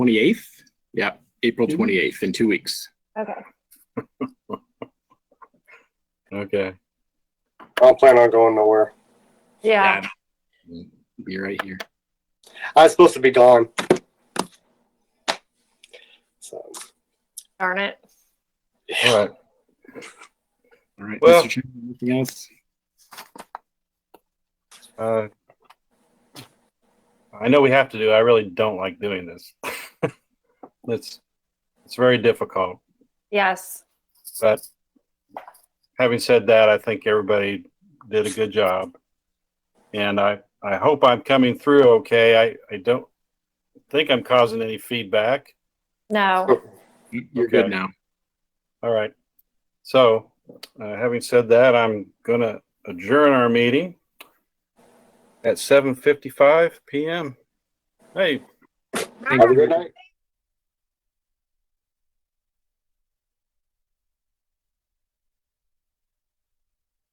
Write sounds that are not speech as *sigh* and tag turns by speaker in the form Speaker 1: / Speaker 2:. Speaker 1: 28th? Yeah, April 28th in two weeks.
Speaker 2: Okay.
Speaker 3: Okay.
Speaker 4: I don't plan on going nowhere.
Speaker 2: Yeah.
Speaker 1: Be right here.
Speaker 4: I was supposed to be gone. So,
Speaker 2: Darn it.
Speaker 3: All right.
Speaker 1: All right,
Speaker 3: Well-
Speaker 1: Mr. Chairman, anything else?
Speaker 3: Uh, I know we have to do. I really don't like doing this. *laughs* it's it's very difficult.
Speaker 2: Yes.
Speaker 3: But having said that, I think everybody did a good job, and I I hope I'm coming through okay. I I don't think I'm causing any feedback.
Speaker 2: No.
Speaker 1: You- You're
Speaker 3: Okay.
Speaker 1: good now.
Speaker 3: All right. So, uh, having said that, I'm gonna adjourn our meeting at 7:55 p.m. Hey,
Speaker 4: have a good night.